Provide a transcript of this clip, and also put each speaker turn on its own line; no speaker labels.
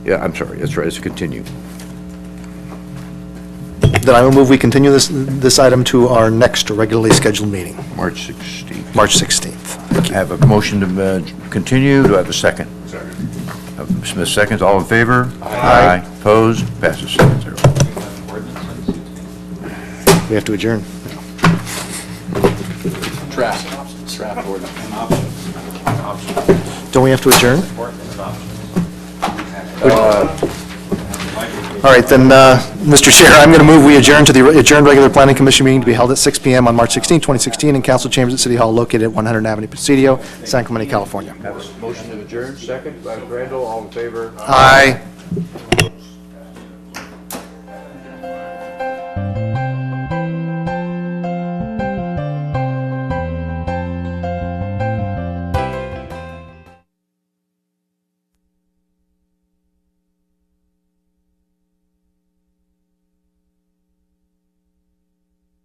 Yeah, I'm sorry, that's right, it's continue.
Then I will move we continue this, this item to our next regularly scheduled meeting,
March 16th.
March 16th.
I have a motion to uh, continue, do I have a second? Second. Smith seconds, all in favor? Aye. Opposed? Passes seven zero.
We have to adjourn.
Draft, draft ordinance.
Don't we have to adjourn? All right, then, uh, Mr. Chair, I'm going to move we adjourn to the adjourned regular planning commission meeting to be held at 6 PM on March 16, 2016, in council chambers at City Hall located at 100 Avenue Presidio, San Clemente, California.
Motion to adjourn, second by Randall, all in favor?
Aye.